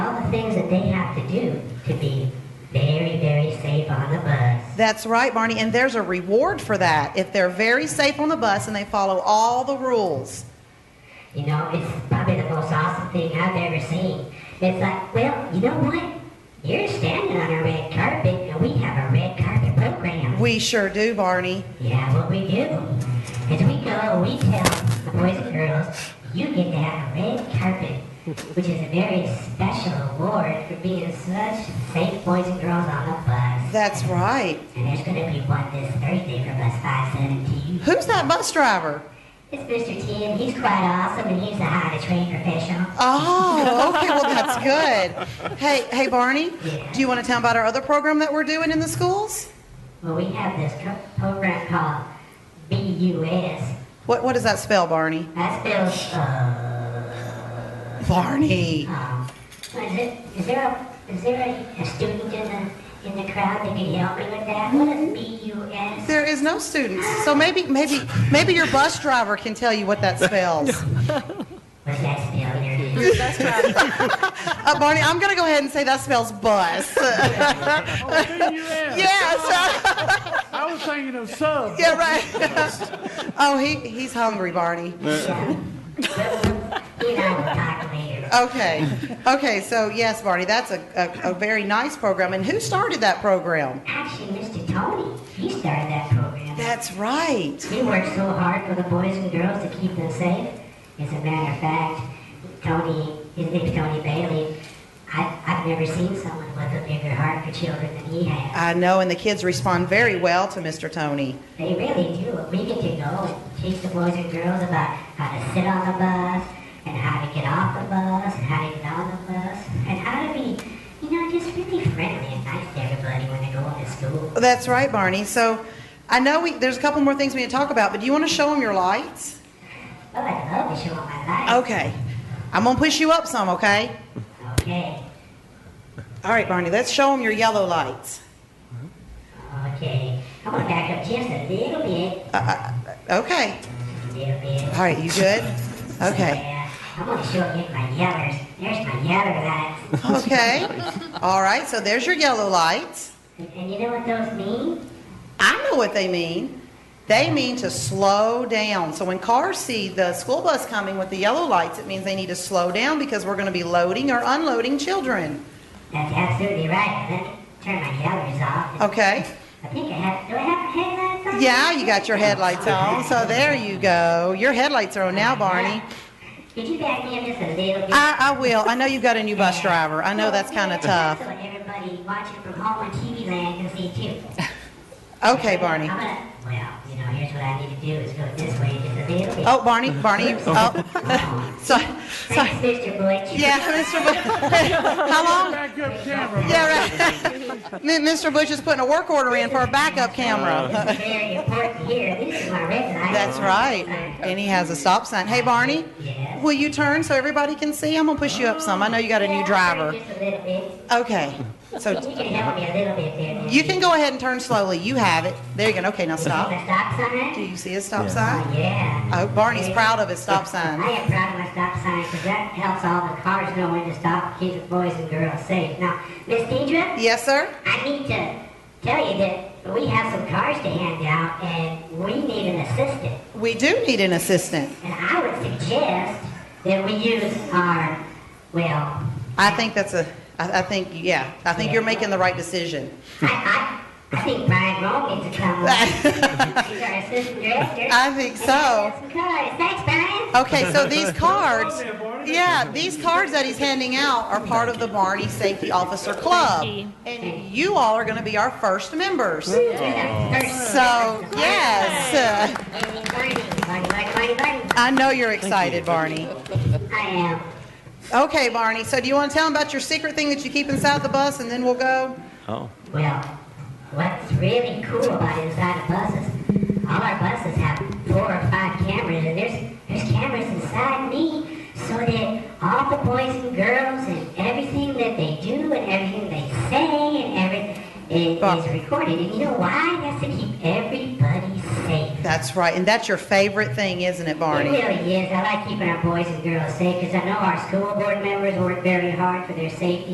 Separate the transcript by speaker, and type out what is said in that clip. Speaker 1: they have to do to be very, very safe on the bus.
Speaker 2: That's right, Barney. And there's a reward for that if they're very safe on the bus and they follow all the rules.
Speaker 1: You know, it's probably the most awesome thing I've ever seen. It's like, well, you know what? You're standing on a red carpet, and we have a red carpet program.
Speaker 2: We sure do, Barney.
Speaker 1: Yeah, what we do is we go and we tell the boys and girls, you get to have a red carpet, which is a very special award for being such safe boys and girls on the bus.
Speaker 2: That's right.
Speaker 1: And there's going to be one this Thursday for bus 517.
Speaker 2: Who's that bus driver?
Speaker 1: It's Mr. T, and he's quite awesome, and he's a highly trained professional.
Speaker 2: Oh, okay. Well, that's good. Hey, hey, Barney. Do you want to tell about our other program that we're doing in the schools?
Speaker 1: Well, we have this tr- program called BUS.
Speaker 2: What What does that spell, Barney?
Speaker 1: That spells, uh,
Speaker 2: Barney.
Speaker 1: um, is, it, is there, a, is there a, a student in the, in the crowd that can help me with that? What is BUS?
Speaker 2: There is no students, so maybe maybe maybe your bus driver can tell you what that spells.
Speaker 1: What's that spell there?
Speaker 2: Uh, Barney, I'm gonna go ahead and say that spells bus.
Speaker 3: Oh, didn't you ask?
Speaker 2: yes.
Speaker 3: I was thinking of sub.
Speaker 2: Yeah, right. oh, he, he's hungry, Barney.
Speaker 1: You know, we'll talk later.
Speaker 2: Okay. Okay, so yes, Barney, that's a, a, a very nice program. And who started that program?
Speaker 1: Actually, Mr. Tony, he started that program.
Speaker 2: That's right.
Speaker 1: He worked so hard for the boys and girls to keep them safe. As a matter of fact, Tony, his name's Tony Bailey. I, I've never seen someone with a bigger heart for children than he has.
Speaker 2: I know, and the kids respond very well to Mr. Tony.
Speaker 1: They really do. We get to go and teach the boys and girls about how to sit on the bus and how to get off the bus and how to get on the bus and how to be, you know, just really friendly and nice to everybody when they go into school.
Speaker 2: That's right, Barney. So I know we, there's a couple more things we need to talk about, but do you want to show them your lights?
Speaker 1: Oh, I love to show them my life.
Speaker 2: Okay. I'm going to push you up some, okay?
Speaker 1: Okay.
Speaker 2: All right, Barney, let's show them your yellow lights.
Speaker 1: Okay. I'm gonna back up just a little bit.
Speaker 2: Okay.
Speaker 1: A little bit.
Speaker 2: All right, you good? Okay.
Speaker 1: Yeah. I'm gonna show you my yellers. There's my yeller lights.
Speaker 2: Okay. All right, so there's your yellow lights.
Speaker 1: And, and you know what those mean?
Speaker 2: I know what they mean. They mean to slow down. So when cars see the school bus coming with the yellow lights, it means they need to slow down because we're going to be loading or unloading children.
Speaker 1: That's absolutely right. Let me turn my yellers off.
Speaker 2: Okay?
Speaker 1: I think I have. Do I have headlights on?
Speaker 2: Oh. Yeah, you got your headlights on. So there you go. Your headlights are on now, Barney.
Speaker 1: Could you back me up just a little bit?
Speaker 2: I, I will. I know you've got a new bus driver. I know that's kind of tough.
Speaker 1: So everybody watching from home on TV land can see too.
Speaker 2: Okay, Barney.
Speaker 1: I'm gonna. Well, you know, here's what I need to do is go this way just a little bit.
Speaker 2: Oh, Barney, Barney. Oh,
Speaker 1: Oh.
Speaker 2: sorry. sorry.
Speaker 1: Thanks, Mr. Butch.
Speaker 2: Yeah, Mr. Bush. How long?
Speaker 3: Back up camera.
Speaker 2: Yeah, right. M- Mr. Bush is putting a work order in for a backup camera.
Speaker 1: Very important here. This is my red light.
Speaker 2: That's right. And he has a stop sign. Hey, Barney,
Speaker 1: Yes.
Speaker 2: will you turn so everybody can see? I'm gonna push you up some. I know you got a new driver.
Speaker 1: Just a little bit.
Speaker 2: Okay. So
Speaker 1: You can help me a little bit there.
Speaker 2: you can go ahead and turn slowly. You have it. There you go. Okay, now
Speaker 1: The
Speaker 2: stop.
Speaker 1: stop
Speaker 2: Do
Speaker 1: sign?
Speaker 2: you see his stop sign?
Speaker 1: Yeah.
Speaker 2: Oh, Barney's proud of his stop sign.
Speaker 1: I am proud of my stop sign because that helps all the cars know when to stop, keep the boys and girls safe. Now, Miss Deidre,
Speaker 2: Yes, sir.
Speaker 1: I need to tell you that we have some cars to hand out and we need an assistant.
Speaker 2: We do need an assistant.
Speaker 1: And I would suggest that we use our, well,
Speaker 2: I think that's a. I, I think yeah. I think you're making the right decision.
Speaker 1: I, I, I think Brian Rome needs to come on. He's our assistant director.
Speaker 2: I think
Speaker 1: And
Speaker 2: so.
Speaker 1: he has some colors. Thanks, Brian.
Speaker 2: Okay, so these cards,
Speaker 3: there, Barney.
Speaker 2: yeah, these cards that he's handing out are part of the Barney Safety Officer Club.
Speaker 4: you.
Speaker 2: And you all are going to be our first members. So,
Speaker 1: First.
Speaker 2: yes, uh,
Speaker 1: Barney, Barney, Barney, Barney, Barney.
Speaker 2: I know you're excited, Barney.
Speaker 1: I am.
Speaker 2: Okay, Barney, so do you want to tell him about your secret thing that you keep inside the bus and then we'll go?
Speaker 5: Oh.
Speaker 1: Well, what's really cool about inside the buses, all our buses have four or five cameras, and there's there's cameras inside me, so that all the boys and girls and everything that they do and everything they say and every it
Speaker 2: Bob.
Speaker 1: is recorded. And you know why? That's to keep everybody safe.
Speaker 2: That's right, and that's your favorite thing, isn't it, Barney?
Speaker 1: It really is. I like keeping our boys and girls safe because I know our school board members work very hard for their safety